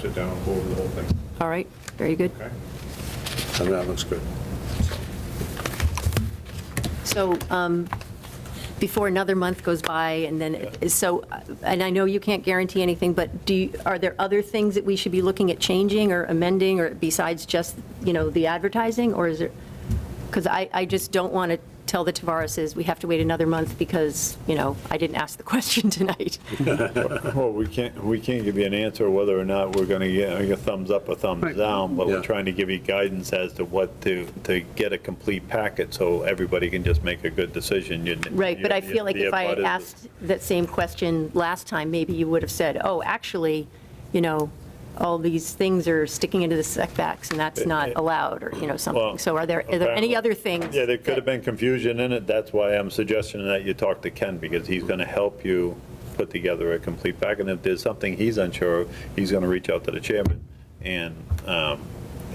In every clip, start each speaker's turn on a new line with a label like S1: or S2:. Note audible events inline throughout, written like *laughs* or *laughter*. S1: sit down and go over the whole thing,
S2: All right, very good.
S1: okay?
S3: And that looks good.
S2: So um, before another month goes by, and then, so, uh, and I know you can't guarantee anything, but do, you- are there other things that we should be looking at changing or amending, or besides just, you know, the advertising, or is there, because I, I just don't want to tell the Tavarises, we have to wait another month because, you know, I didn't ask the *laughs* question tonight.
S4: Well, *laughs* we can't, we can't give you an answer whether or not we're going to get a thumbs up or thumbs down, but
S3: Yeah.
S4: we're trying to give you guidance as to what to, to get a complete packet so everybody can just make a good decision. You-
S2: Right, but I
S4: you-
S2: feel like
S4: the
S2: if I had
S4: abutters-
S2: asked that same question last time, maybe you would have said, oh, actually, you know, all these things are sticking into the setbacks, and that's not allowed, or, you know, something.
S4: Eh, Well,
S2: So are there, are there any
S4: apparently-
S2: other things?
S4: Yeah, there could have
S2: that-
S4: been confusion in it. That's why I'm suggesting that you talk to Ken, because he's going to help you put together a complete pack. And if there's something he's unsure of, he's going to reach out to the chairman, and um,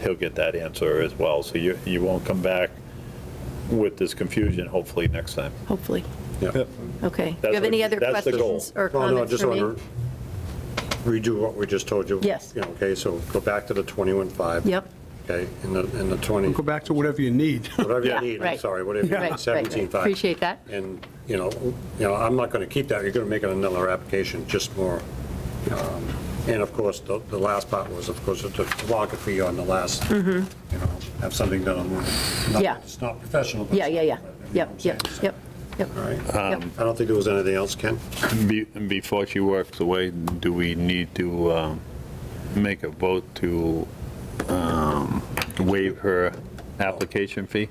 S4: he'll get that answer as well. So you, you won't come back with this confusion, hopefully, next time.
S2: Hopefully,
S3: Yeah.
S2: okay. Do
S4: That's
S2: you have
S4: what
S2: any
S4: you-
S2: other
S4: that's the goal.
S2: questions or
S3: Well, Oh, no, I
S2: comments
S3: just
S2: for me?
S3: want to redo what we just told you.
S2: Yes.
S3: Yeah, Okay, so go back to the 21.5.
S2: Yep,
S3: Okay, and the, and the 20,
S5: Go back to whatever you need.
S3: *laughs* whatever
S2: Yeah,
S3: you need, I'm
S2: right.
S3: sorry, whatever you
S2: right,
S3: need,
S2: right, right.
S3: 17.5.
S2: Appreciate that.
S3: And, you know, you know, I'm not going to keep that, you're going to make it another application, just more. um, And of course, the, the last part was, of course, the topography on the last, you know, have something done. on the- not-
S2: Mm-hmm. Yeah.
S3: It's not professional. but
S2: Yeah, yeah, yeah,
S3: it's- you know
S2: yep,
S3: what I'm
S2: yep, yep,
S3: saying?
S2: yep.
S3: All right.
S2: Yep.
S4: Um,
S3: I don't think there was anything else, Ken?
S4: Be- Before she works away, do we need to um, make a vote to um, waive her application fee?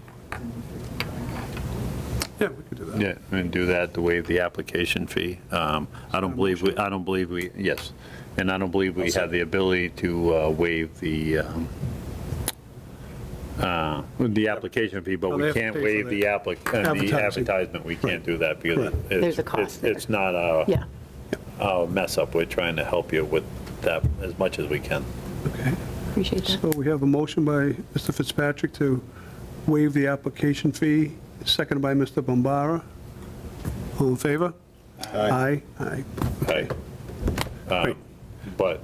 S5: Yeah, we could do that.
S4: Yeah, and do that to waive the application fee. Um, I don't believe, we. I don't believe we, yes, and I don't believe we have the ability to uh, waive the, um, uh, the application fee, but
S5: No, they
S4: we
S5: have to
S4: can't
S5: pay for
S4: waive the
S5: the
S4: applic, uh, the
S5: advertising.
S4: advertisement, we can't do that because it's-
S2: There's a
S4: it's,
S2: cost
S4: it's not our
S2: Yeah,
S4: our mess up. We're trying to help you with that as much as we can.
S5: Okay.
S2: appreciate that.
S5: So we have a motion by Mr. Fitzpatrick to waive the application fee, seconded by Mr. Bombara. All in favor? Aye. Aye,
S4: Okay. Um, But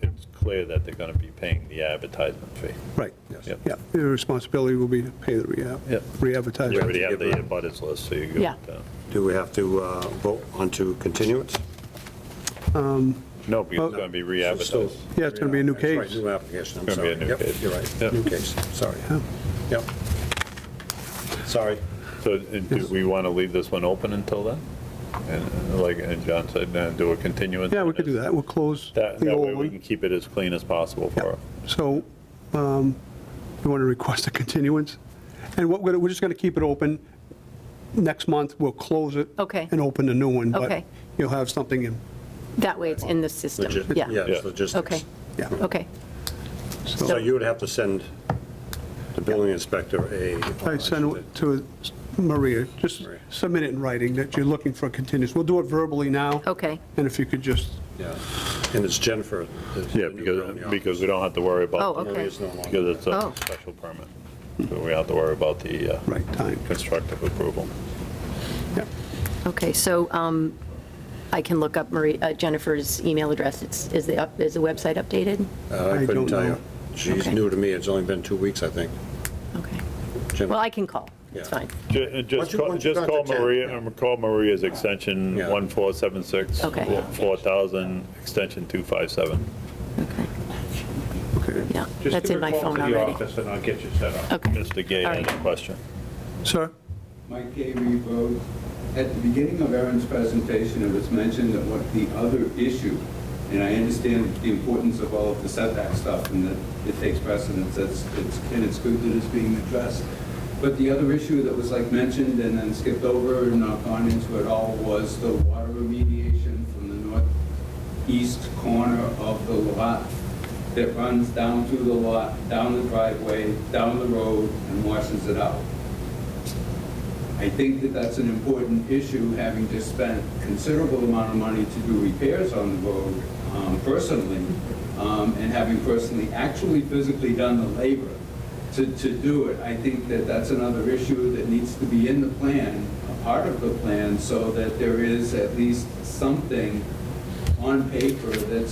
S4: it's clear that they're going to be paying the advertisement fee.
S5: right.
S4: Yep.
S5: Yeah, the responsibility will be to pay the
S4: Yep.
S5: re- re-advertising.
S4: You already have the
S3: give a-
S4: abutters list, so you go.
S2: Yeah.
S4: with that.
S3: Do we have to uh, vote on to continuance?
S4: No, because it's
S5: Well-
S4: going to be re-advertised.
S5: Yeah, it's gonna be a new
S3: That's right,
S5: case.
S3: New application, I'm
S4: Gonna be
S3: sorry.
S4: a new
S3: Yep,
S4: case.
S3: You're right,
S4: Yep.
S3: new case, sorry.
S5: Yeah.
S3: Yep. Sorry.
S4: So uh, do we want to leave this one open until then? And uh, like uh, John said, uh, do a continuance?
S5: Yeah, we
S4: on
S5: could do
S4: this.
S5: that. We'll close
S4: That,
S5: the
S4: that way
S5: old
S4: we can
S5: one.
S4: keep it as clean as possible for her.
S5: So um, you want to request a continuance? And what, we're we're just gonna keep it open. Next month, we'll close it.
S2: Okay.
S5: And open a new one.
S2: Okay.
S5: But you'll have something in,
S2: That way it's in the system,
S3: Logi-
S2: yeah.
S3: it's logistics.
S2: Okay,
S5: yeah.
S2: okay,
S3: So you would have to send the building inspector a.
S5: I send it to Maria, just
S3: Maria.
S5: submit it in writing that you're looking for a continuance. We'll do it verbally now.
S2: okay,
S5: And if you could just,
S3: Yeah, and it's Jennifer. the-
S4: Yeah,
S3: the new
S4: because,
S3: building
S4: because we don't have to worry about.
S2: Oh,
S4: the-
S2: okay.
S3: Maria's no longer-
S4: Because it's
S2: Oh.
S4: a special permit. So we have to worry about the uh,
S5: right time,
S4: constructive approval.
S5: yeah.
S2: okay. So um, I can look up Marie, uh, Jennifer's email address. It's, is the, up- is the website updated?
S3: Uh, I
S5: I
S3: couldn't
S5: don't
S3: tell you.
S5: know.
S3: She's
S2: Okay.
S3: new to me, it's only been two weeks, I think.
S2: Okay.
S3: Jen-
S2: Well, I can call. It's
S3: Yeah.
S2: fine.
S4: Ju- uh,
S3: Once
S4: Just
S3: you-
S4: call,
S3: once you
S4: just
S3: got
S4: call
S3: the check,
S4: Maria,
S3: yeah.
S4: um, call Maria's extension
S3: Yeah.
S4: 1476.
S2: Okay.
S4: 4000, extension 257.
S5: Okay.
S2: Yeah,
S1: Just
S2: that's
S1: give
S2: in
S1: her a
S2: my
S1: call
S2: phone
S1: to the
S2: already.
S1: office And I'll get you set up.
S2: Okay,
S4: Mr. Gay
S2: All
S4: had
S2: right.
S4: a question.
S5: Sir?
S6: Mike Avery Road. At the beginning of Aaron's presentation, it was mentioned that what the other issue, and I understand the importance of all of the setback stuff and that it takes precedence, that's, it's, and it's good that it's being addressed. But the other issue that was like mentioned and then skipped over and not gone into at all was the water remediation from the northeast corner of the lot that runs down through the lot, down the driveway, down the road, and washes it out. I think that that's an important issue, having just spent considerable amount of money to do repairs on the road um, personally, um, and having personally actually physically done the labor to, to do it. I think that that's another issue that needs to be in the plan, a part of the plan, so that there is at least something on paper that's